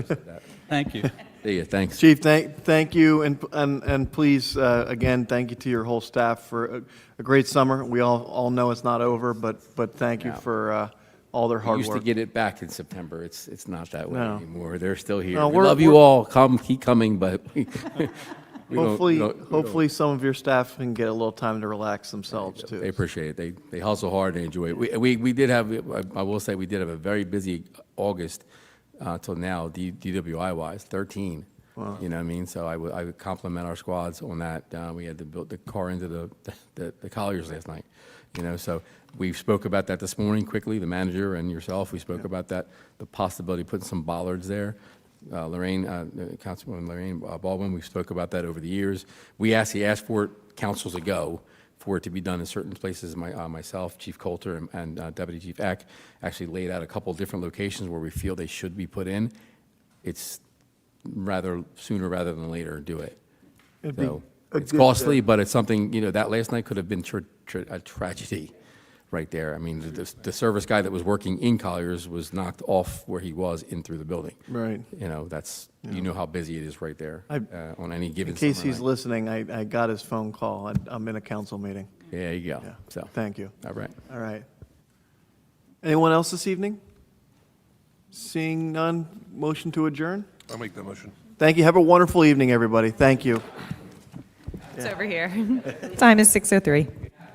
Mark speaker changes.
Speaker 1: Thank you.
Speaker 2: See you, thanks.
Speaker 3: Chief, thank, thank you, and, and, and please, uh, again, thank you to your whole staff for a, a great summer. We all, all know it's not over, but, but thank you
Speaker 2: No.
Speaker 3: for, uh, all their
Speaker 2: We
Speaker 3: hard
Speaker 2: used to
Speaker 3: work.
Speaker 2: get it back in September. It's, it's not that way
Speaker 3: No.
Speaker 2: anymore. They're still here.
Speaker 3: No,
Speaker 2: We
Speaker 3: we're-
Speaker 2: love you
Speaker 3: we're-
Speaker 2: all. Come, keep coming, but we we don't- we
Speaker 3: Hopefully,
Speaker 2: don't- we don't-
Speaker 3: hopefully some of your staff can get a little time to relax themselves
Speaker 2: They
Speaker 3: too.
Speaker 2: appreciate it. They, they hustle hard and enjoy it. We, we, we did have, I- I will say, we did have a very busy August uh, till now, D- DWI wise, 13. You know what I mean? So I would, I would compliment our squads on that. Uh, we had to build the car into the, the, the Colliers last night. You know, so we spoke about that this morning quickly, the manager and yourself, we spoke about that, the possibility of putting some bollards there. Uh, Lorraine, uh, Councilwoman Lorraine uh, Baldwin, we spoke about that over the years. We actually asked for it councils ago, for it to be done in certain places. My, uh, myself, Chief Coulter, and, and uh, Deputy Chief Eck actually laid out a couple different locations where we feel they should be put in. It's rather sooner rather than later, do it.
Speaker 3: be
Speaker 2: So
Speaker 3: a
Speaker 2: it's
Speaker 3: good, uh,
Speaker 2: costly, but it's something, you know, that last night could have been tra- tra- a tragedy right there. I mean, the- the, the service guy that was working in Colliers was knocked off where he was in through the building.
Speaker 3: Right.
Speaker 2: You know, that's, you know how busy it is right there
Speaker 3: I-
Speaker 2: uh, on any given
Speaker 3: In
Speaker 2: summer
Speaker 3: case he's
Speaker 2: night.
Speaker 3: listening, I, I got his phone call. I- I'm in a council meeting.
Speaker 2: There you go.
Speaker 3: Yeah.
Speaker 2: So,
Speaker 3: Thank you.
Speaker 2: all right.
Speaker 3: All right. Anyone else this evening? Seeing none, motion to adjourn?
Speaker 4: I'll make that motion.
Speaker 3: Thank you. Have a wonderful evening, everybody. Thank you.
Speaker 5: It's over here. Time is 6:03.